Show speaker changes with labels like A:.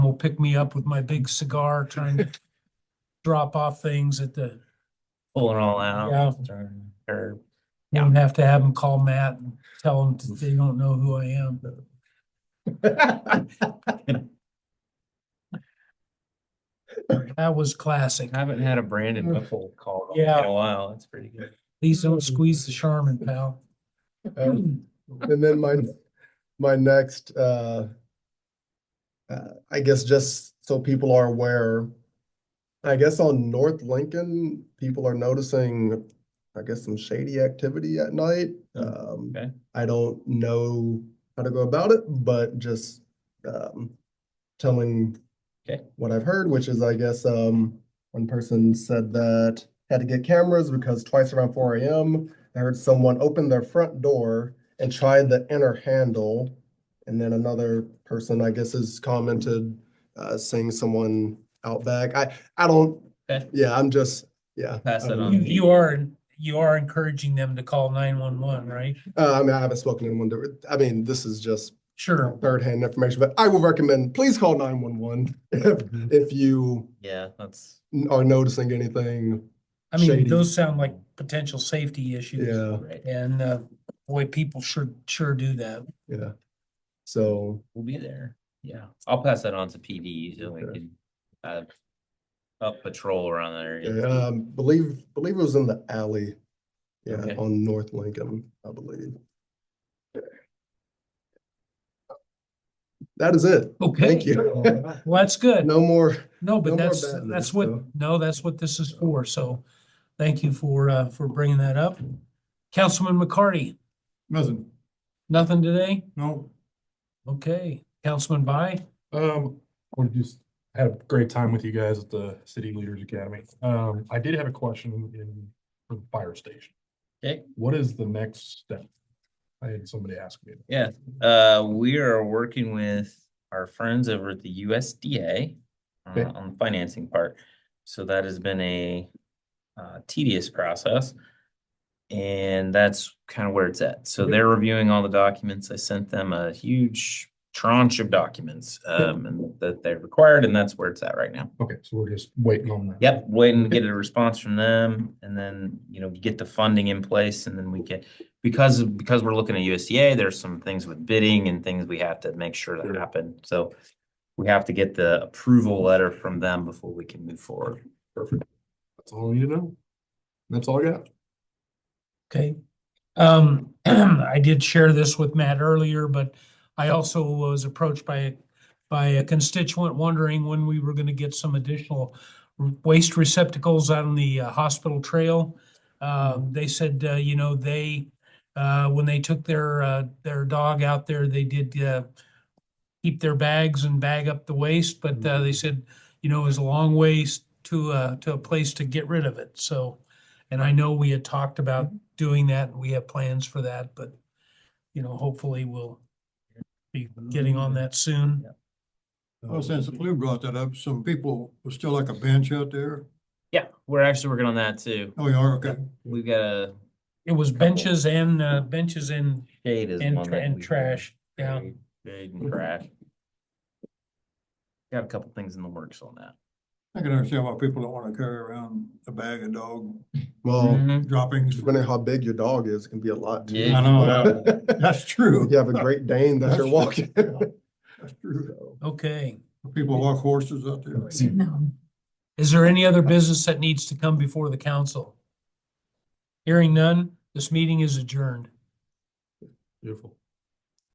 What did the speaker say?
A: pick me up with my big cigar trying to drop off things at the,
B: pulling all out. Or,
A: you don't have to have them call Matt and tell him they don't know who I am. That was classic.
B: haven't had a Brandon Whipple call in
A: Yeah.
B: a while. That's pretty good.
A: Please don't
C: Mm.
A: squeeze the Charmin, pal.
C: Um, And then my, my next, uh, uh, I guess just so people are aware, I guess on North Lincoln, people are noticing, I guess, some shady activity at night. Um,
B: Hmm. okay.
C: I don't know how to go about it, but just, um, telling
B: Okay.
C: what I've heard, which is, I guess, um, one person said that had to get cameras because twice around four AM, I heard someone open their front door and tried the inner handle. And then another person, I guess, has commented, uh, saying someone out back. I, I don't,
B: Okay.
C: yeah, I'm just, yeah.
B: Pass that
C: Um,
B: on.
A: You, you are, you are encouraging them to call nine one one, right?
C: Uh, I mean, I haven't spoken to anyone, to- I mean, this is just
A: Sure.
C: third hand information, but I will recommend, please call nine one one if, if you
B: Yeah, that's.
C: are noticing anything.
A: I mean,
C: Shady.
A: those sound like potential safety issues.
C: Yeah,
B: Right.
A: And, uh, boy, people sure, sure do that.
C: yeah. So,
B: We'll be there. Yeah, I'll pass that on to PD so we
C: Okay.
B: can uh up patrol around that
C: yeah,
B: area.
C: um, believe, believe it was in the alley. Yeah,
B: Okay.
C: on North Lincoln, I believe. That is it.
A: Okay.
C: Thank you.
A: Well, that's good.
C: No more.
A: No,
C: No
A: but
C: more
A: that's,
C: bad
A: that's
C: news,
A: what,
C: so.
A: no, that's what this is for. So thank you for, uh, for bringing that up. Councilman McCarty,
D: Nothing,
A: nothing today?
D: no,
A: Okay. Councilman By?
D: um, we just had a great time with you guys at the City Leaders Academy. Um, I did have a question in, for the fire station.
B: Okay.
D: What is the next step? I had somebody ask me.
B: Yeah, uh, we are working with our friends over at the USDA uh,
D: Okay.
B: on the financing part. So that has been a uh, tedious process. And that's kind of where it's at. So they're reviewing all the documents. I sent them a huge tranche of documents um, and that they required, and that's where it's at right now.
D: Okay, so we're just waiting on that.
B: Yep, waiting to get a response from them and then, you know, get the funding in place and then we can, because, because we're looking at USDA, there's some things with bidding and things we have to make sure that
D: Sure.
B: happen. So we have to get the approval letter from them before we can move forward.
D: Perfect. That's all I need to know. That's all I got.
A: Okay. Um, I did share this with Matt earlier, but I also was approached by, by a constituent wondering when we were gonna get some additional waste receptacles out on the uh, hospital trail. Um, they said, uh, you know, they, uh, when they took their, uh, their dog out there, they did, uh, keep their bags and bag up the waste, but, uh, they said, you know, it was a long ways to, uh, to a place to get rid of it, so. And I know we had talked about
B: Mm-hmm.
A: doing that, and we have plans for that, but, you know, hopefully we'll be getting on that soon.
E: Well, Oh, since Lou brought that up, some people, was still like a bench out there.
B: Yeah, we're actually working on that too.
E: Oh, you are, okay.
B: We've got a
A: It was benches and, uh, benches and,
B: shade is
A: and,
B: one
A: tra-
B: that
A: and
B: we-
A: trash, yeah.
B: Shade shade and trash. Got a couple things in the works on that.
E: I can understand why people don't wanna carry around a bag of dog
C: Well,
E: droppings.
C: depending how big your dog is, it can be a lot. too.
B: Mm-hmm. Yeah.
E: Hmm. I know, that's true.
C: You have a great Dane that you're walking.
E: That's true.
A: Okay.
E: People walk horses out there.
A: Is there any other business that needs to come before the council? Hearing none, this meeting is adjourned.
D: Beautiful.